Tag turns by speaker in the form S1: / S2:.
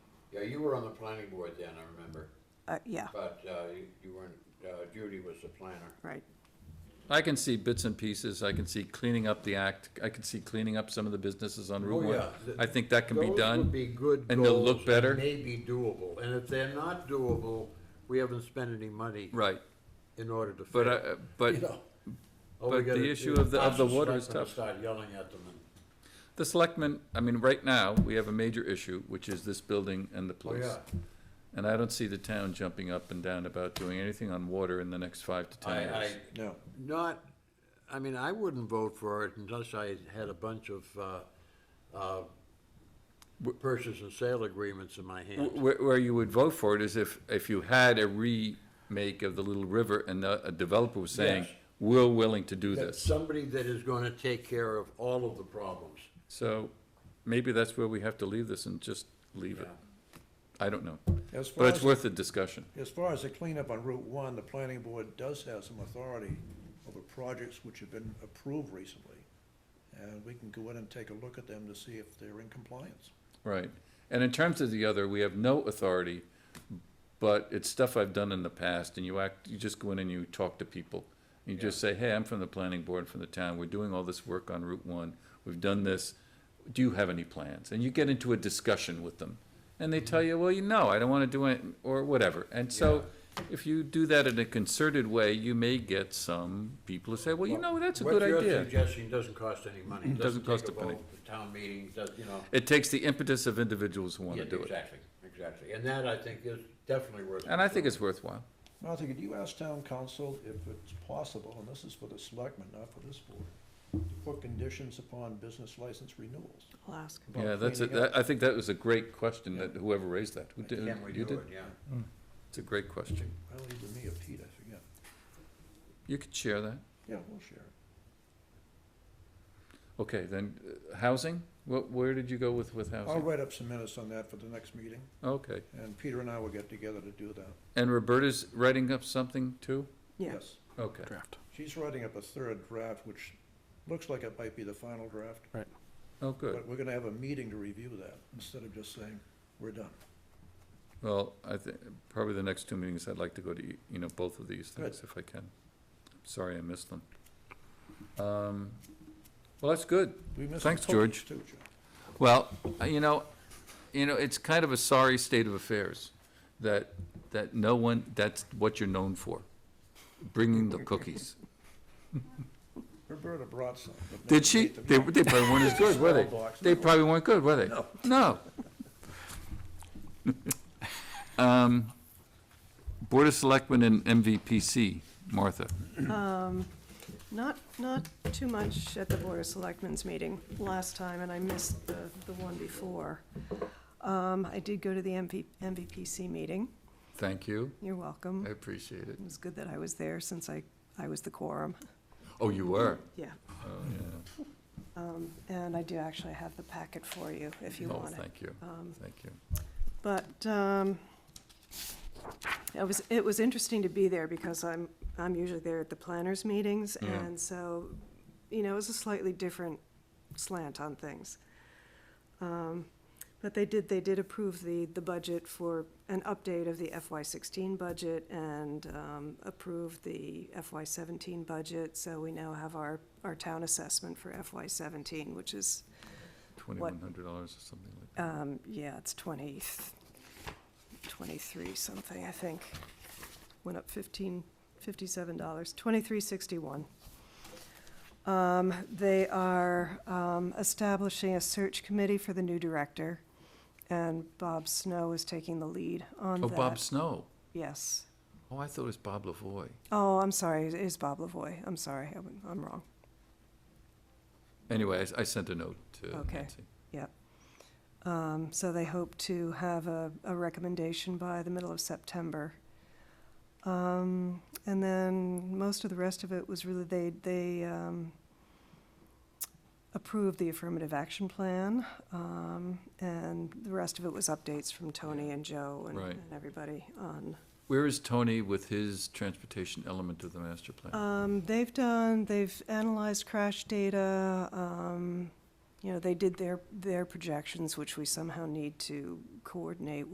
S1: Yeah, you were on the planning board then, I remember,
S2: Uh, yeah,
S1: but, uh, you- you weren't, uh, Judy was the planner.
S2: right.
S3: I can see bits and pieces, I can see cleaning up the act, I can see cleaning up some of the businesses on Route
S1: Oh,
S3: One.
S1: yeah. Th-
S3: I think that can be
S1: Those would
S3: done.
S1: be good
S3: and they'll
S1: goals
S3: look
S1: and
S3: better.
S1: Maybe doable, and if they're not doable, we haven't spent any money
S3: Right,
S1: in order to.
S3: but,
S1: fix
S3: uh, but
S1: You know, all we
S3: but the
S1: gotta
S3: issue
S1: do
S3: of the- of the
S1: is
S3: water is
S1: start from
S3: tough.
S1: Start yelling at them and,
S3: the selectmen, I mean, right now, we have a major issue, which is this building and the
S1: oh,
S3: police.
S1: yeah.
S3: And I don't see the town jumping up and down about doing anything on water in the next five to ten
S1: I, I,
S3: years.
S4: No.
S1: not, I mean, I wouldn't vote for it unless I had a bunch of, uh, uh, purchase and sale agreements in my hand.
S3: Wh- Where, where you would vote for it is if, if you had a remake of the Little River and a a developer was saying,
S1: Yes.
S3: we're willing to do
S1: That
S3: this.
S1: somebody that is gonna take care of all of the problems.
S3: So maybe that's where we have to leave this and just leave it. I don't know.
S4: As far
S3: But it's
S4: as,
S3: worth a discussion.
S4: as far as the cleanup on Route One, the planning board does have some authority over projects which have been approved recently. And we can go in and take a look at them to see if they're in compliance.
S3: Right. And in terms of the other, we have no authority, but it's stuff I've done in the past and you act, you just go in and you talk to people. You just say, hey, I'm from the planning board, from the town. We're doing all this work on Route One. We've done this. Do you have any plans? And you get into a discussion with them. And they
S1: Mm-hmm.
S3: tell you, well, you know, I don't want to do it, or whatever. And so if you do that in a concerted way, you may get some people who say, well, you know, that's a good
S1: What you're
S3: idea.
S1: suggesting doesn't cost any money. It
S3: Doesn't cost
S1: take
S3: a penny.
S1: vote, the Town meeting, does, you know.
S3: It takes the impetus of individuals who want
S1: yeah,
S3: to do it.
S1: Exactly, exactly. And that, I think, is definitely worth.
S3: And I think
S1: considering.
S3: it's worthwhile.
S4: Martha, could you ask town council if it's possible, and this is for the selectmen, not for this board, to put conditions upon business license renewals?
S2: I'll ask.
S4: about
S3: Yeah, that's, a-
S4: cleaning up?
S3: that- I think that was a great question that whoever raised that. Who did-
S1: Can we
S3: you
S1: do
S3: did?
S1: it, yeah.
S3: It's a great question.
S4: Well, either me or Pete, I forget.
S3: You could share that.
S4: Yeah, we'll share it.
S3: Okay, then, uh, housing? What, where did you go with, with
S4: I'll
S3: housing?
S4: write up some minutes on that for the next meeting,
S3: Okay.
S4: and Peter and I will get together to do that.
S3: And Roberta's writing up something too?
S2: Yeah,
S4: Yes.
S3: Okay.
S4: She's writing up a third draft, which looks like it might be the final draft,
S3: Oh, good.
S4: but we're gonna have a meeting to review that, instead of just saying, we're done.
S3: Well, I think, probably the next two meetings, I'd like to go to, e- you know, both of these things if I can. Sorry I missed them. Um, Well, that's good.
S4: We missed
S3: Thanks,
S4: the totals
S3: George.
S4: too, Joe.
S3: Well, uh, you know, you know, it's kind of a sorry state of affairs that, that no one, that's what you're known for, bringing the cookies.
S4: Roberta brought some. but
S3: Did
S4: nobody
S3: she?
S4: ate them.
S3: They, they probably weren't as good, were they?
S4: Small box,
S3: They
S4: no.
S3: probably weren't good, were they?
S4: No.
S3: No. Um, Board of Selectmen and MVPC, Martha.
S2: not, not too much at the Board of Selectmen's meeting last time, and I missed the, the one before. Um, I did go to the MV, MVPC meeting.
S3: Thank you.
S2: You're welcome.
S3: I appreciate it.
S2: It was good that I was there since I, I was the quorum.
S3: Oh, you were?
S2: Yeah,
S3: Oh, yeah.
S2: and I do actually have the packet for you if you um,
S3: Oh,
S2: want it.
S3: thank you. Thank you.
S2: But um, it was, it was interesting to be there because I'm, I'm usually there at the planners' meetings.
S3: Yeah.
S2: And so, you know, it was a slightly different slant on things. Um, But they did, they did approve the, the budget for an update of the FY sixteen budget and um, approved the FY seventeen budget. So we now have our, our town assessment for FY seventeen, which is
S3: Twenty-one hundred dollars or something like that.
S2: um, yeah, it's 20, 23 something, I think. Went up 15, $57, 2361. Um, They are um, establishing a search committee for the new director, and Bob Snow is taking the lead on
S3: Oh,
S2: uh, that.
S3: Bob Snow.
S2: Yes.
S3: Oh, I thought it was Bob Lavoy.
S2: Oh, I'm sorry, it is Bob Lavoy. I'm sorry, I'm- I'm wrong.
S3: Anyway, I s- I, sent a note to
S2: Okay.
S3: Nancy.
S2: Um, So they hope to have a, a recommendation by the middle of September. Um, And then most of the rest of it was really, they, they um, approved the affirmative action plan. um, And the rest of it was updates from Tony and Joe and
S3: Right.
S2: and everybody on.
S3: Where is Tony with his transportation element of the master plan?
S2: Um, They've done, they've analyzed crash data. um, You know, they did their, their projections, which we somehow need to coordinate